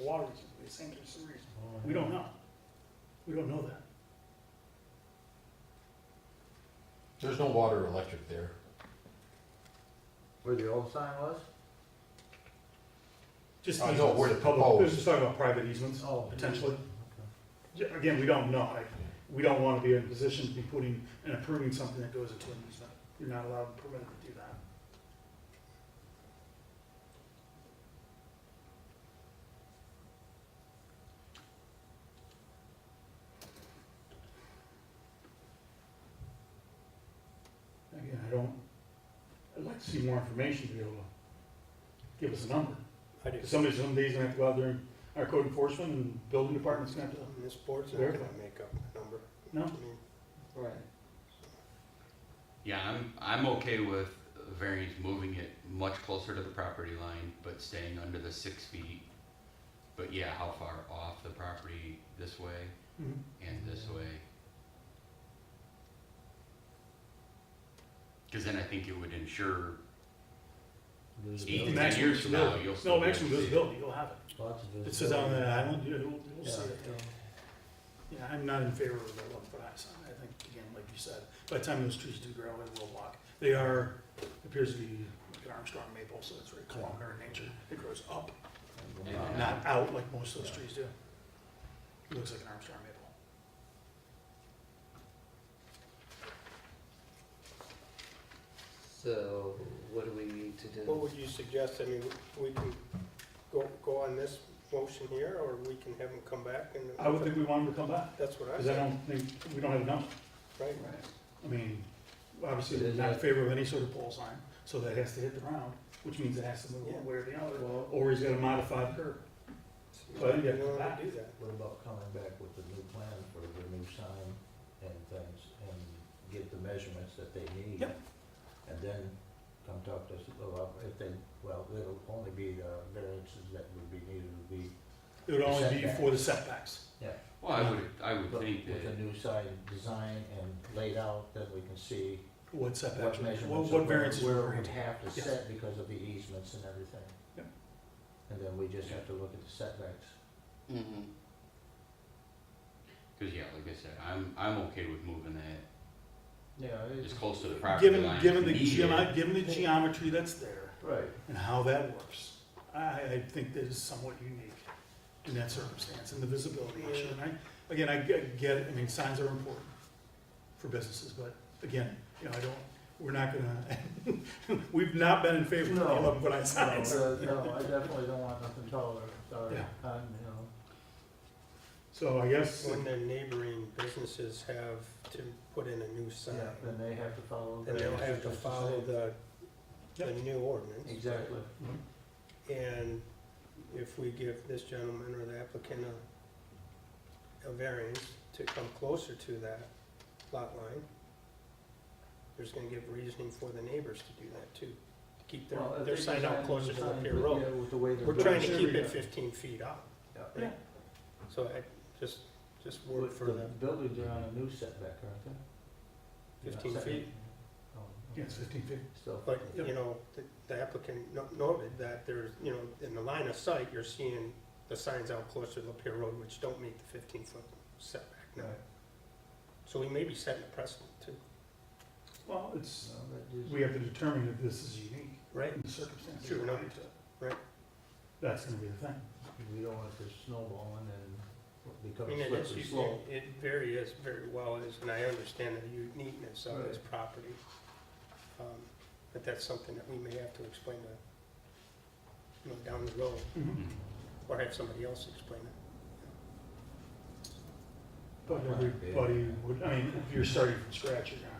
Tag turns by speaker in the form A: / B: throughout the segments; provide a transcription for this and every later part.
A: water resources, they sink their sewers. We don't know. We don't know that.
B: There's no water or electric there.
C: Where the old sign was?
A: Just
B: I know where to
A: easements, public,
B: propose.
A: this is talking about private easements,
C: Oh.
A: potentially. Yeah, Again, we don't know, I, we don't wanna be in a position to be putting and approving something that goes into an easement. You're not allowed, permitted to do that. Again, I don't, I'd like to see more information to be able to give us a number.
D: I do.
A: Somebody, some days gonna have to go out there and, our code enforcement and building department's gonna have to,
D: And This board's not gonna make up the number.
A: no?
D: I mean,
C: Right.
E: Yeah, I'm, I'm okay with a variance moving it much closer to the property line, but staying under the six feet. But yeah, how far off the property this way
A: Mhm.
E: and this way? Cause then I think it would ensure eight to ten
A: Maximum
E: years from now,
A: visibility.
E: you'll still
A: No,
E: be able to
A: maximum
E: see it.
A: visibility, you'll have it. It says on the island, you'll, you'll
C: Yeah.
A: see it. Yeah, I'm not in favor of the eleven foot high sign, I think, again, like you said, by the time those trees do grow, it will block. They are, appears to be like an Armstrong maple, so it's very columnar in nature, it grows up,
E: Yeah.
A: not out like most of those trees do. It looks like an Armstrong maple.
F: So what do we need to
D: What
F: do?
D: would you suggest? I mean, we can go, go on this motion here, or we can have them come back and.
A: I would think we want them to come back,
D: That's what I
A: because I
D: said,
A: don't think, we don't have enough.
D: right?
F: Right.
A: I mean, obviously, they're not in favor of any sort of pole sign, so that has to hit the ground, which means it has to move one way or the other, or he's gonna modify the curb. Well, yeah.
D: You don't wanna do that.
C: What about coming back with the new plan for the new sign and things and get the measurements that they need?
A: Yep.
C: And then come talk to us about if they, well, it'll only be the variances that would be needed would be,
A: It would only be for the setbacks.
E: Well, I would, I would
C: but
E: think
C: with
E: that,
C: the new sign design and laid out, then we can see
A: What setbacks, what,
C: what measurements.
A: what
C: of where-
A: variances
C: Where
A: we're
C: we'd
A: granting.
C: have to
A: Yes.
C: set because of the easements and everything.
A: Yep.
C: And then we just have to look at the setbacks.
F: Mm-hmm.
E: cause yeah, like I said, I'm, I'm okay with moving that
C: Yeah,
E: as
C: it's,
E: close to the property
A: Given,
E: line.
A: given
E: as
A: the
E: needed.
A: geometry, given the geometry that's there
C: right.
A: and how that works, I, I think that is somewhat unique in that circumstance and the visibility issue. And I, again, I get, get- I mean, signs are important for businesses, but again, you know, I don't, we're not gonna, we've not been in favor of the
C: No.
A: eleven foot high
C: No,
A: signs.
C: uh, no, I definitely don't want nothing taller, sorry,
A: Yeah.
C: um, you know,
A: So I guess,
D: When the neighboring businesses have to put in a new sign,
C: yeah, then they have to follow.
D: then
C: the-
D: they'll have to follow the, the new ordinance.
C: Exactly,
D: And if we give this gentleman or the applicant a, a variance to come closer to that lot line, there's gonna give reasoning for the neighbors to do that too, to keep their,
C: Well, if
D: their
C: they
D: sign
C: design
D: out closer to
C: the
D: the
C: sign,
D: pier
C: but,
D: road.
C: yeah, with the way they're
D: We're trying
C: built.
D: to
A: Sure,
D: keep
A: yeah.
D: it fifteen feet up,
C: Yeah.
A: yeah,
D: so I, just, just word
C: With
D: for
C: the
D: the
C: buildings are on a new setback, aren't they? You're not
D: 15
C: setting-
D: feet.
C: Oh, okay.
A: yes, fifteen feet.
C: Still.
D: But,
A: Yep.
D: you know, the- the applicant no- noted that there's, you know, in the line of sight, you're seeing the signs out closer to Lapeer Road, which don't meet the fifteen-foot setback now.
C: Right.
D: So we may be setting a precedent too.
A: Well, it's,
C: No, that is-
A: we have to determine if this is unique
D: Right.
A: in the circumstances.
D: Sure, no.
A: related to it.
D: Right.
A: That's gonna be the thing.
C: We don't want this snowballing and
D: I mean,
C: becoming
D: it is,
C: slippery
D: you-
C: slope.
D: it very is, very well is, and I understand the uniqueness of this
C: Right.
D: property. Um, But that's something that we may have to explain to, you know, down the road,
C: Mm-hmm.
E: Mhm.
D: or have somebody else explain it.
A: But everybody would, I mean, if you're starting from scratch, you're gonna,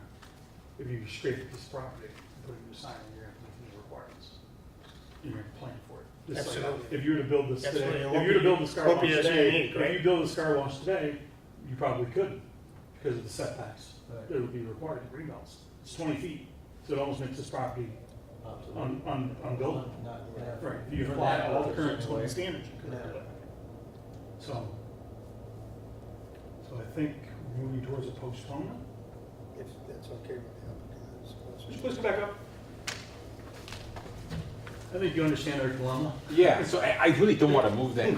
A: if you scrape this property and put a new sign in, you're gonna meet the requirements. You're gonna plan for it. Just like
D: Absolutely.
A: If you were to build this
D: Absolutely,
A: today,
D: it
A: if
D: won't
A: you were to
D: be-
A: build this car
D: won't
A: wash
D: be as
A: today,
D: unique,
A: if
D: right?
A: you build this car wash today, you probably couldn't because of the setbacks
C: Right.
A: that would be required in greenbelts. It's twenty feet, so it almost makes this property un, un, unbuildable.
C: Not- not-
A: Right, if you
C: for
A: apply
C: that
A: all the
C: purpose
A: current
C: anyway.
A: zoning standards, you could do it. So, so I think we're moving towards a postponement.
D: If that's okay with the applicant, I suppose.
A: Just please come back up. I think you understand our dilemma.
G: Yeah, so I, I really don't wanna move that